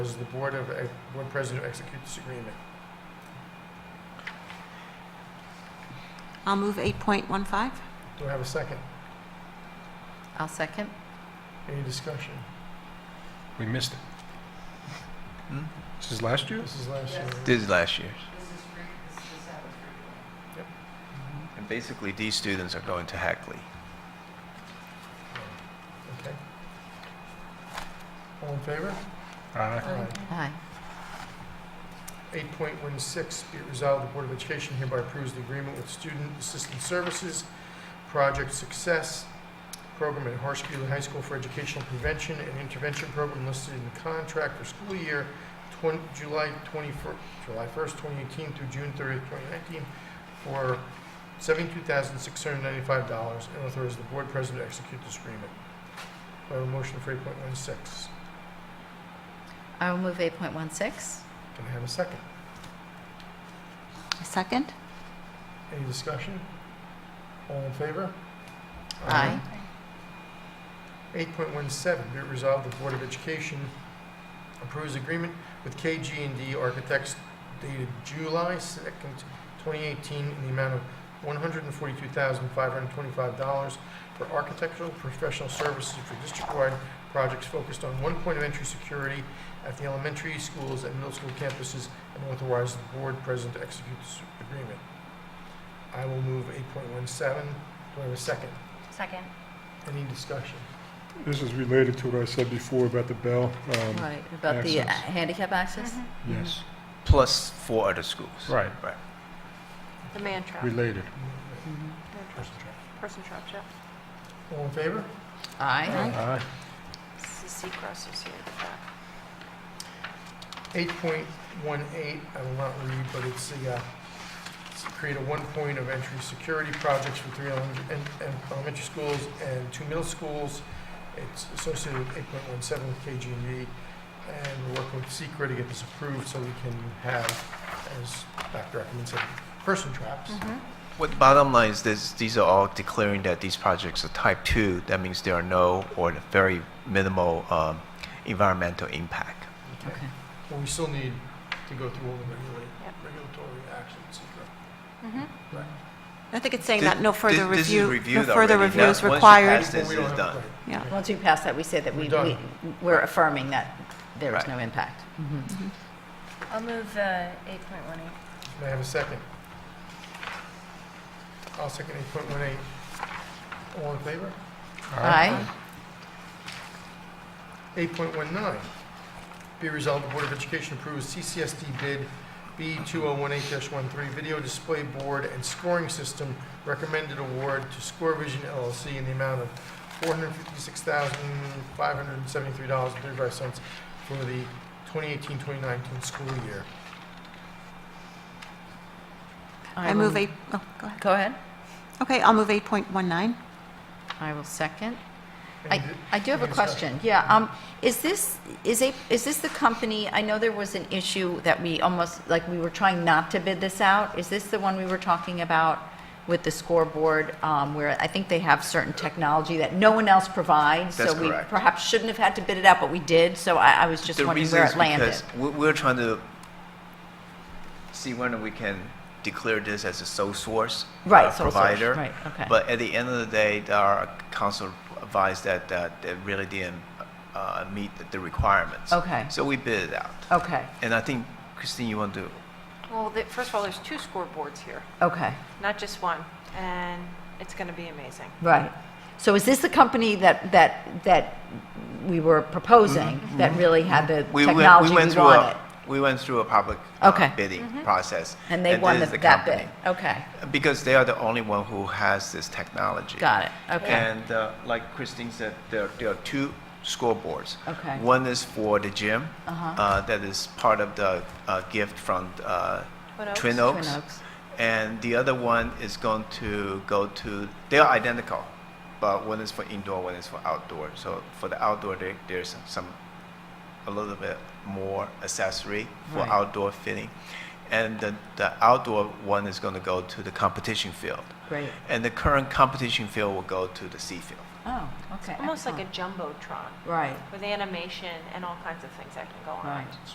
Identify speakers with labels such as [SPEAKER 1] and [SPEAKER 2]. [SPEAKER 1] Does the Board of, uh, Board President execute this agreement?
[SPEAKER 2] I'll move 8.15.
[SPEAKER 1] Do I have a second?
[SPEAKER 3] I'll second.
[SPEAKER 1] Any discussion?
[SPEAKER 4] We missed it. This is last year?
[SPEAKER 1] This is last year.
[SPEAKER 5] Hmm? This is last year's.
[SPEAKER 1] Yep.
[SPEAKER 5] Mm-hmm. And basically, these students are going to Hackley.
[SPEAKER 1] Okay. All in favor?
[SPEAKER 4] Aye.
[SPEAKER 3] Aye.
[SPEAKER 1] Eight point one six, be it resolved, the Board of Education hereby approves the agreement with Student Assistance Services, Project Success Program at Horace Greeley High School for Educational Prevention and Intervention Program listed in the contract for school year twen- July twenty-first, July first, twenty eighteen through June thirtieth, twenty nineteen, for seventy-two thousand six hundred ninety-five dollars, and authorize the Board President to execute this agreement. Do I have a motion for eight point one six?
[SPEAKER 3] I will move 8.16.
[SPEAKER 1] Can I have a second?
[SPEAKER 2] A second?
[SPEAKER 1] Any discussion? All in favor?
[SPEAKER 3] Aye.
[SPEAKER 1] 8.17, be it resolved, the Board of Education approves agreement with KG&D Architects dated July 2nd, 2018, in the amount of $142,525 for architectural professional services for district-wide projects focused on one point of entry security at the elementary schools and middle school campuses, and authorize the Board President to execute this agreement. I will move 8.17. Do I have a second?
[SPEAKER 3] Second.
[SPEAKER 1] Any discussion?
[SPEAKER 4] This is related to what I said before about the bell. um,
[SPEAKER 3] Right, about the uh,
[SPEAKER 4] Access.
[SPEAKER 3] handicap access?
[SPEAKER 4] Mm-hmm. Yes,
[SPEAKER 5] Plus four other schools.
[SPEAKER 4] right,
[SPEAKER 6] The man trap,
[SPEAKER 4] related.
[SPEAKER 3] Mhm.
[SPEAKER 6] person trap, yeah.
[SPEAKER 1] All in favor?
[SPEAKER 3] Aye.
[SPEAKER 4] Aye.
[SPEAKER 6] This is Seacrest is here. but-
[SPEAKER 1] 8.18, I will not read, but it's the, uh, it's to create a one point of entry security projects for three elemen- and- and elementary schools and two middle schools. It's associated with 8.17 with KG&E, E, and we're working with Secra to get this approved so we can have, as Dr. Ackerman said, person traps.
[SPEAKER 2] Mm-hmm.
[SPEAKER 5] What bottom line is this, these are all declaring that these projects are type two. That means there are no or very minimal um, environmental impact.
[SPEAKER 3] Okay.
[SPEAKER 1] But we still need to go through all the regula-
[SPEAKER 6] Yep.
[SPEAKER 1] regulatory actions, Secra.
[SPEAKER 2] I think it's saying
[SPEAKER 5] Thi-
[SPEAKER 2] that no further
[SPEAKER 5] thi- this
[SPEAKER 2] review,
[SPEAKER 5] is
[SPEAKER 2] no
[SPEAKER 5] reviewed
[SPEAKER 2] further
[SPEAKER 5] already.
[SPEAKER 2] review
[SPEAKER 5] Now,
[SPEAKER 2] is
[SPEAKER 5] once you
[SPEAKER 2] required.
[SPEAKER 5] pass This
[SPEAKER 1] We don't
[SPEAKER 5] is
[SPEAKER 1] have-
[SPEAKER 5] done.
[SPEAKER 1] right.
[SPEAKER 2] Yeah.
[SPEAKER 3] Once we pass that, we say that we,
[SPEAKER 1] We're done.
[SPEAKER 3] we- we're affirming that there is
[SPEAKER 5] Right.
[SPEAKER 3] no impact. Mhm.
[SPEAKER 7] I'll move uh, eight point one eight.
[SPEAKER 1] May I have a second? I'll second 8.18. All in favor?
[SPEAKER 3] Aye.
[SPEAKER 1] 8.19, be resolved, the Board of Education approves CCSD bid B2018-13 Video Display Board and Scoring System recommended award to Score Vision LLC in the amount of $456,573.35 for the 2018-2019 school year.
[SPEAKER 2] I
[SPEAKER 3] will-
[SPEAKER 2] move eight, oh, go ahead.
[SPEAKER 3] Go ahead.
[SPEAKER 2] Okay, I'll move 8.19.
[SPEAKER 3] I will second.
[SPEAKER 1] Any
[SPEAKER 3] I,
[SPEAKER 1] di-
[SPEAKER 3] I do have a
[SPEAKER 1] any discussion?
[SPEAKER 3] question. Yeah, um, is this, is a, is this the company, I know there was an issue that we almost, like, we were trying not to bid this out. Is this the one we were talking about with the scoreboard, um, where I think they have certain technology that no one else provides?
[SPEAKER 5] That's
[SPEAKER 3] So we
[SPEAKER 5] correct.
[SPEAKER 3] perhaps shouldn't have had to bid it out, but we did, so I, I was just
[SPEAKER 5] the
[SPEAKER 3] wondering
[SPEAKER 5] reason
[SPEAKER 3] where
[SPEAKER 5] is
[SPEAKER 3] it landed.
[SPEAKER 5] because we- we're trying to see when we can declare this as a sole source
[SPEAKER 3] Right,
[SPEAKER 5] uh,
[SPEAKER 3] sole source,
[SPEAKER 5] provider.
[SPEAKER 3] right, okay.
[SPEAKER 5] But at the end of the day, our council advised that that it really didn't uh, meet the requirements.
[SPEAKER 3] Okay.
[SPEAKER 5] So we bid it out.
[SPEAKER 3] Okay,
[SPEAKER 5] And I think, Christine, you want to,
[SPEAKER 6] Well, the- first of all, there's two scoreboards here,
[SPEAKER 3] okay,
[SPEAKER 6] not just one, and it's going to be amazing.
[SPEAKER 3] right. So is this the company that, that, that we were proposing, that really had the
[SPEAKER 5] Mm-hmm. we went, we
[SPEAKER 3] technology we
[SPEAKER 5] went through
[SPEAKER 3] wanted?
[SPEAKER 5] a, we went through a public uh,
[SPEAKER 3] Okay. Mm-hmm.
[SPEAKER 5] bidding process.
[SPEAKER 3] And they won
[SPEAKER 5] this
[SPEAKER 3] the-
[SPEAKER 5] is
[SPEAKER 3] that bid?
[SPEAKER 5] company.
[SPEAKER 3] Okay,
[SPEAKER 5] Because they are the only one who has this technology.
[SPEAKER 3] got it, okay.
[SPEAKER 5] And uh, like Christine said, there, there are two scoreboards.
[SPEAKER 3] Okay.
[SPEAKER 5] One is for the gym,
[SPEAKER 3] Uh-huh.
[SPEAKER 5] uh, that is part of the uh, gift from uh,
[SPEAKER 6] Twin Oaks?
[SPEAKER 5] Twin
[SPEAKER 3] Twin
[SPEAKER 5] Oaks.
[SPEAKER 3] Oaks.
[SPEAKER 5] And the other one is going to go to, they are identical, but one is for indoor, one is for outdoor. So for the outdoor, there, there's some, some, a little bit more accessory for
[SPEAKER 3] Right.
[SPEAKER 5] outdoor fitting. And the, the outdoor one is going to go to the competition field.
[SPEAKER 3] Great.
[SPEAKER 5] And the current competition field will go to the C field.
[SPEAKER 3] Oh, okay.
[SPEAKER 6] Almost like a
[SPEAKER 3] excellent.
[SPEAKER 6] jumbotron
[SPEAKER 3] Right.
[SPEAKER 6] with animation and all kinds of things that can go on.
[SPEAKER 3] Right.